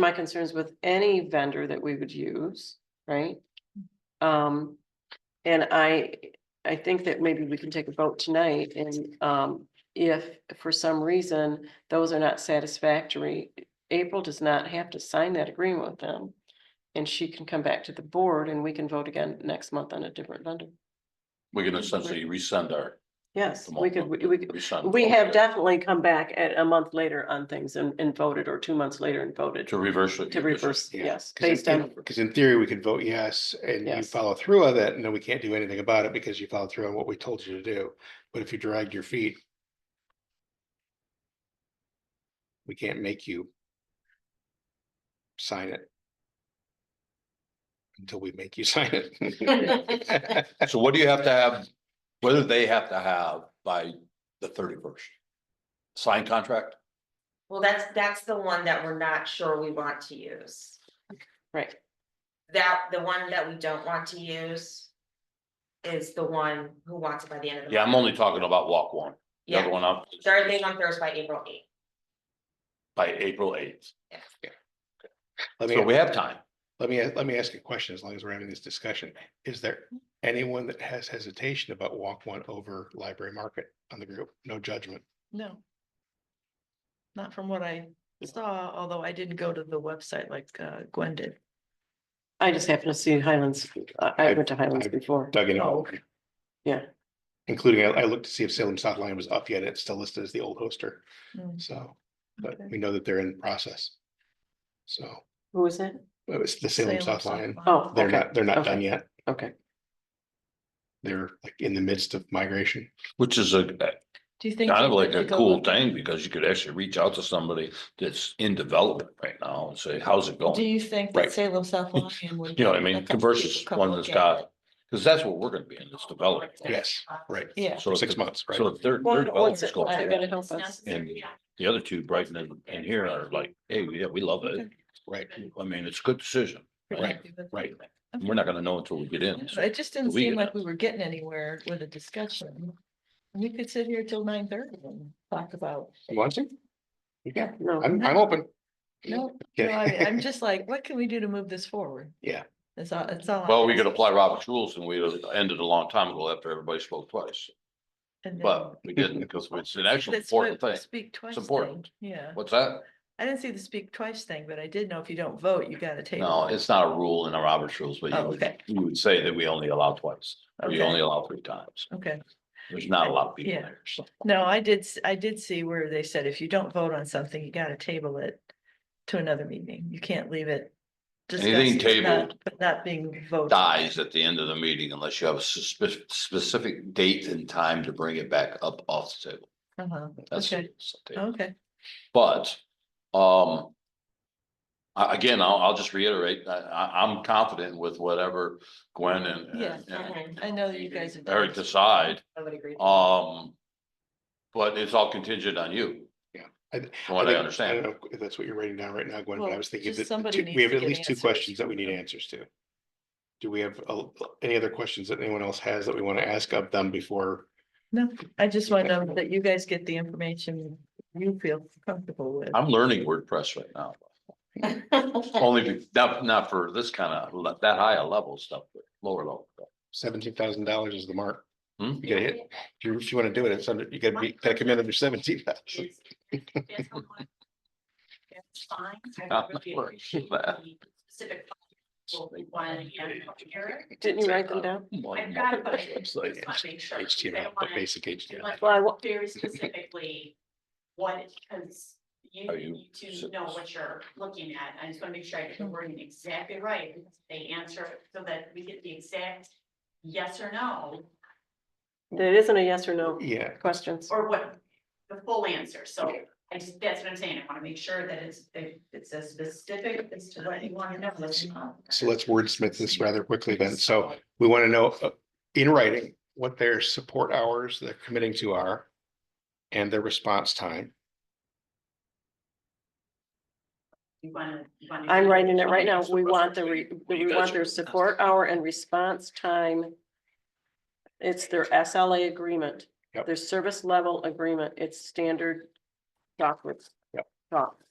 my concerns with any vendor that we would use, right? Um, and I, I think that maybe we can take a vote tonight and, um, if for some reason those are not satisfactory, April does not have to sign that agreement with them. And she can come back to the board and we can vote again next month on a different vendor. We can essentially resend our. Yes, we could, we, we could- Resend. we have definitely come back at a month later on things and, and voted or two months later and voted To reverse it. to reverse, yeah, yes, Because based in, on, because in theory, we could vote yes, and you Yes. follow through on that, and then we can't do anything about it because you followed through on what we told you to do. But if you dragged your feet. We can't make you. Sign it. Until we make you sign it. So what do you have to have, whether they have to have by the thirty first? Signed contract? Well, that's, that's the one that we're not sure we want to use. right. That, the one that we don't want to use. Is the one who wants it by the end of the. Yeah, I'm month. only talking about walk one. The other Yeah. one up Start date on Thursday, April eighth. by April eighth. Let So me, we have time. let me, let me ask you a question, as long as we're having this discussion. Is there anyone that has hesitation about walk one over library market on the group? No judgment. No. Not from what I saw, although I didn't go to the website like uh, Gwen did. I just happened to see Highlands, I, I I've- went to Highlands I've before, Dug in Oh, all. yeah. Including, I, I looked to see if Salem South Line was up yet. It's still listed as the old hoster, Mm, so, but okay. we know that they're in process. So, Who is that? it was the Salem South Line. Oh, They're okay. not, they're not done okay. yet. Okay, They're like in the midst of migration. Which is a, Do you think? kind they of like a could go cool look- thing because you could actually reach out to somebody that's in development right now and say, how's it Do going? you think Right. that Salem South Lothian would? You know what I let mean? them Versus come one look that's at it? got, because that's what we're gonna be in, this development. Yes, right. Yeah. So Six if- months, right? So if their, Well, their and development's also, going I you through, gotta help us. and the other two, Brighton and, and here are like, hey, yeah, we love it. Right. I mean, it's a good decision. Pretty Right, happy with right. that. And Okay. We're not gonna know until we get I in. don't know, It just didn't we seem get like it. we were getting anywhere with a discussion. We could sit here till nine thirty and talk about, You want to? Yeah, no, I'm, I'm open. no, no, Okay. I- I'm just like, what can we do to move this forward? Yeah. That's all, that's all. I'm Well, we could asking. apply Robert's rules and we ended a long time ago after everybody spoke twice, And then- but we didn't because it's an actual That's important what thing. Speak twice. important. thing, Yeah, What's that? I didn't see the speak twice thing, but I did know if you don't vote, you gotta take. No, it's not a rule in our Robert's rules, but you Oh, would, okay. you would say that we only allow twice. or We Okay. only allow three times. Okay, There's not a lot of people Yeah. there. so. no, I did, s- I did see where they said if you don't vote on something, you gotta table it to another meeting. You can't leave it. discussed, Anything it's not- tabled But not being voted. Dies at the end of the meeting unless you have a suspi- specific date and time to bring it back up off the table. Uh-huh, That's. okay, Oh. that's the table. okay. But, um. I, again, I'll, I'll just reiterate, I, I, I'm confident with whatever Gwen and. and- Yeah, and Mhm. I know that you guys. have done Eric this. decide, I would agree. um. But it's all contingent on you, I th- from what I think- understand. don't know if that's what you're writing down right now, Gwen, but I Well, was thinking just that the somebody two- we needs have to at give least two answers. questions that we need answers to. Do we have uh, any other questions that anyone else has that we want to ask of them before? No, I just want to know that you guys get the information you feel comfortable with. I'm learning WordPress right now. Only, be- not, not for this kind of, that high a level stuff, but lower level. stuff. Seventeen thousand dollars is the mark. Hmm? You gotta hit, if you, if you want to do it, it's under, you gotta be, gotta come in under seventeen thousand. That's fine. Ah, I really look, appreciate that. the specific one and Eric. Didn't you write them down? I've got it, but I It's just like- want to make sure. because I HTML, don't the wanna- basic I HTML. want Very specifically, what, because you Are you- need to know what you're looking at. I just want to make sure I get the wording exactly right. because They answer it so that we get the exact yes or no, It isn't a yes or no Yeah, questions. or what, the full answer. So I just, that's what I'm saying. I want to make sure that it's, that it's as specific as to what you want to know. as you want. so let's wordsmith this rather quickly then. So we want to know uh, in writing what their support hours they're committing to are and their response time. You wanna- you wanna- I'm writing it right now. We want the, re- we want their support hour and response time. It's their SLA agreement, Yep. their service level agreement. It's standard documents. Yep. Doc.